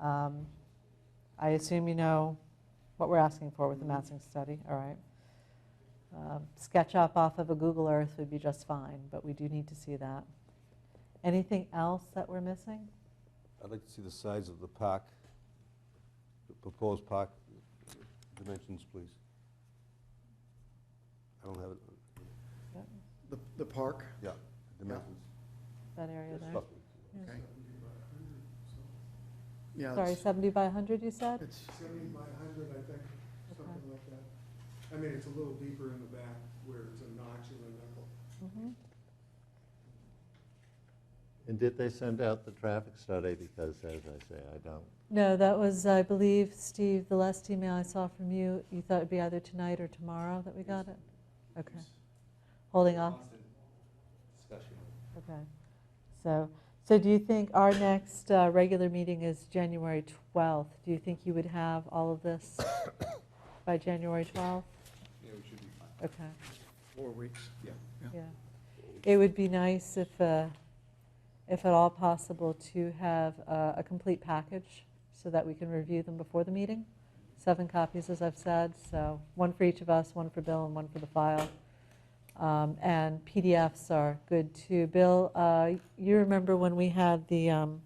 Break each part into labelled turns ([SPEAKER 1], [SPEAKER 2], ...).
[SPEAKER 1] Um, I assume you know what we're asking for with the massing study, all right? Um, Sketch up off of a Google Earth would be just fine, but we do need to see that. Anything else that we're missing?
[SPEAKER 2] I'd like to see the size of the park, the proposed park dimensions, please. I don't have it,
[SPEAKER 3] The, the park,
[SPEAKER 2] yeah, dimensions.
[SPEAKER 1] That area there?
[SPEAKER 2] Stuff.
[SPEAKER 3] okay.
[SPEAKER 1] Sorry,
[SPEAKER 3] Yeah,
[SPEAKER 1] 70 by 100, you said?
[SPEAKER 3] it's,
[SPEAKER 4] Seventy by hundred, I think, something like that. I mean, it's a little deeper in the back where it's a notch and a knuckle.
[SPEAKER 1] Mhm.
[SPEAKER 5] And did they send out the traffic study? Because as I say, I don't.
[SPEAKER 1] No, that was, I believe, Steve, the last email I saw from you, you thought it'd be either tonight or tomorrow that we got it? Okay. Holding off? Okay. So, so do you think our next uh, regular meeting is January 12th? Do you think you would have all of this by January 12th?
[SPEAKER 4] Yeah, we should be fine.
[SPEAKER 1] Okay,
[SPEAKER 3] four weeks, yeah.
[SPEAKER 1] yeah. It would be nice if, uh, if at all possible, to have uh, a complete package so that we can review them before the meeting. Seven copies, as I've said, so one for each of us, one for Bill and one for the file. Um, And PDFs are good too. Bill, uh, you remember when we had the um,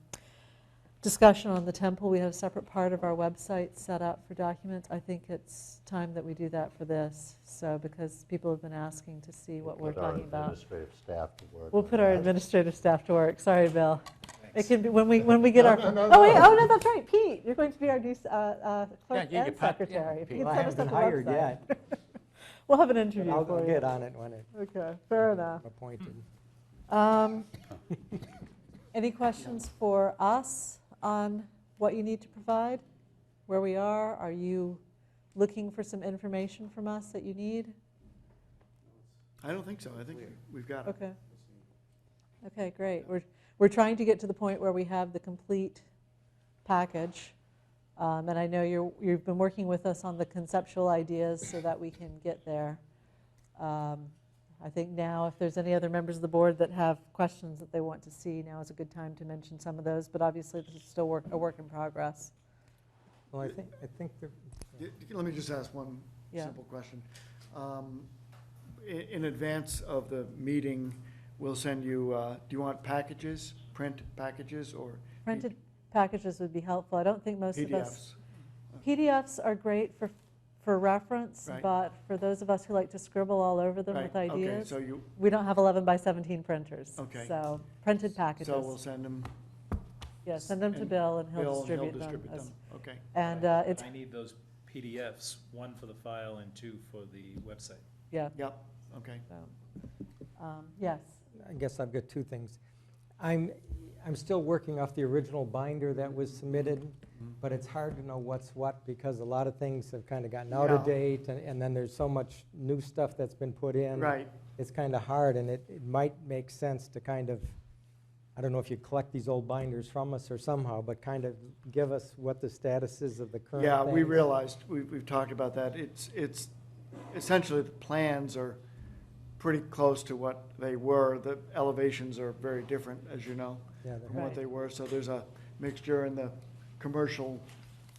[SPEAKER 1] discussion on the temple, we had a separate part of our website set up for documents. I think it's time that we do that for this, so, because people have been asking to see what we're
[SPEAKER 5] put our
[SPEAKER 1] talking about.
[SPEAKER 5] Administrative staff to work.
[SPEAKER 1] We'll
[SPEAKER 5] on
[SPEAKER 1] put our
[SPEAKER 5] that.
[SPEAKER 1] administrative staff to work. Sorry, Bill. It can be, when we, when we get our,
[SPEAKER 5] No, no, no,
[SPEAKER 1] oh, wait,
[SPEAKER 5] no.
[SPEAKER 1] oh, no, that's right, Pete, you're going to be our new s- uh, uh, clerk
[SPEAKER 6] Yeah, you
[SPEAKER 1] and
[SPEAKER 6] could pop- yeah,
[SPEAKER 1] secretary.
[SPEAKER 6] Pete.
[SPEAKER 1] Pete
[SPEAKER 6] Well,
[SPEAKER 1] set
[SPEAKER 6] I
[SPEAKER 1] us
[SPEAKER 6] haven't
[SPEAKER 1] up a
[SPEAKER 6] been hired
[SPEAKER 1] website. We'll have an interview
[SPEAKER 6] I'll
[SPEAKER 1] for
[SPEAKER 6] I'll
[SPEAKER 1] you.
[SPEAKER 6] get on it when it-
[SPEAKER 1] Okay, fair
[SPEAKER 3] Uh,
[SPEAKER 1] enough.
[SPEAKER 6] I'm
[SPEAKER 3] hmm.
[SPEAKER 6] appointed.
[SPEAKER 1] Um, Any questions for us on what you need to provide? Where we are? Are you looking for some information from us that you need?
[SPEAKER 3] I don't think so, I think we- we've got it.
[SPEAKER 1] Okay. Okay, great. We're, we're trying to get to the point where we have the complete package. Um, And I know you're, you've been working with us on the conceptual ideas so that we can get there. Um, I think now, if there's any other members of the board that have questions that they want to see, now is a good time to mention some of those. But obviously, this is still work, a work in progress.
[SPEAKER 6] Well, I think, I think the
[SPEAKER 3] D- d- Let me just ask one
[SPEAKER 1] Yeah.
[SPEAKER 3] simple question. Um, i- In advance of the meeting, we'll send you, uh, do you want packages, print packages, or
[SPEAKER 1] Printed packages would be helpful. I don't think most of us
[SPEAKER 3] PDFs?
[SPEAKER 1] PDFs are great for, for reference,
[SPEAKER 3] Right.
[SPEAKER 1] but for those of us who like to scribble all over them
[SPEAKER 3] Right,
[SPEAKER 1] with
[SPEAKER 3] Okay,
[SPEAKER 1] ideas,
[SPEAKER 3] so you,
[SPEAKER 1] we don't have 11 by 17 printers.
[SPEAKER 3] Okay.
[SPEAKER 1] So printed
[SPEAKER 3] so we'll
[SPEAKER 1] packages.
[SPEAKER 3] send them,
[SPEAKER 1] Yeah, send them to
[SPEAKER 3] and
[SPEAKER 1] Bill and he'll
[SPEAKER 3] Bill, and he'll
[SPEAKER 1] distribute them.
[SPEAKER 3] distribute
[SPEAKER 1] as-
[SPEAKER 3] them, okay.
[SPEAKER 1] And
[SPEAKER 7] But I-
[SPEAKER 1] uh,
[SPEAKER 7] but
[SPEAKER 1] it's,
[SPEAKER 7] I need those PDFs, one for the file and two for the website.
[SPEAKER 1] yeah.
[SPEAKER 3] Yep, okay.
[SPEAKER 1] so, um, Yes,
[SPEAKER 6] I guess I've got two things. I'm, I'm still working off the original binder that was submitted, but it's hard to know what's what because a lot of things have kind of gotten out of
[SPEAKER 3] Yeah.
[SPEAKER 6] date and, and then there's so much new stuff that's been put in.
[SPEAKER 3] Right,
[SPEAKER 6] It's kind of hard and it, it might make sense to kind of, I don't know if you collect these old binders from us or somehow, but kind of give us what the status is of the current
[SPEAKER 3] yeah, we
[SPEAKER 6] things.
[SPEAKER 3] realized, we, we've talked about that, it's, it's, essentially, the plans are pretty close to what they were, the elevations are very different, as you know,
[SPEAKER 6] Yeah, they're-
[SPEAKER 3] from what
[SPEAKER 1] Right.
[SPEAKER 3] they were, so there's a mixture, and the commercial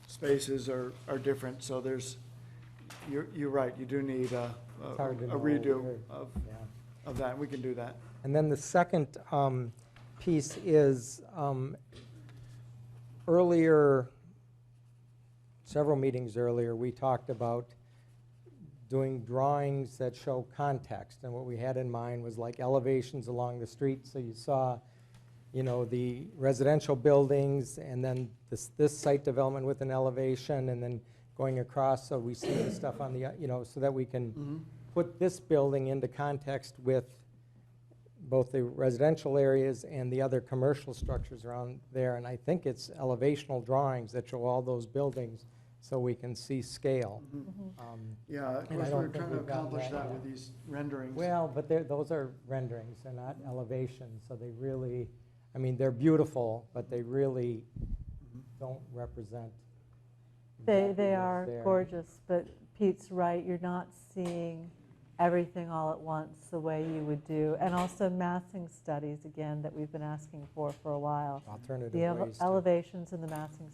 [SPEAKER 3] spaces are, are different, so there's, you're, you're right, you do need a, a
[SPEAKER 6] It's hard to
[SPEAKER 3] a
[SPEAKER 6] know
[SPEAKER 3] redo
[SPEAKER 6] where-
[SPEAKER 3] of,
[SPEAKER 6] yeah.
[SPEAKER 3] of that, we can do that.
[SPEAKER 6] And then the second um, piece is um, earlier, several meetings earlier, we talked about doing drawings that show context. And what we had in mind was like elevations along the street. So you saw, you know, the residential buildings and then this, this site development with an elevation and then going across. So we see the stuff on the, uh, you know, so that we can put this building into context with both the residential areas and the other commercial structures around there. And I think it's elevational drawings that show all those buildings so we can see scale. Um,
[SPEAKER 3] Yeah, of
[SPEAKER 6] And
[SPEAKER 3] course,
[SPEAKER 6] I don't
[SPEAKER 3] we're
[SPEAKER 6] think
[SPEAKER 3] trying to
[SPEAKER 6] we've gotten
[SPEAKER 3] accomplish
[SPEAKER 6] that
[SPEAKER 3] that
[SPEAKER 6] yet.
[SPEAKER 3] with these renderings.
[SPEAKER 6] Well, but they're, those are renderings, they're not elevations, so they really, I mean, they're beautiful, but they really
[SPEAKER 3] Mm-hmm.
[SPEAKER 6] don't represent.
[SPEAKER 1] they,
[SPEAKER 6] exactly
[SPEAKER 1] they
[SPEAKER 6] what's
[SPEAKER 1] are
[SPEAKER 6] there.
[SPEAKER 1] gorgeous, but Pete's right, you're not seeing everything all at once the way you would do. And also massing studies, again, that we've been asking for for a while.
[SPEAKER 6] Alternative
[SPEAKER 1] The
[SPEAKER 6] ways
[SPEAKER 1] ele-
[SPEAKER 6] to-
[SPEAKER 1] elevations and the massing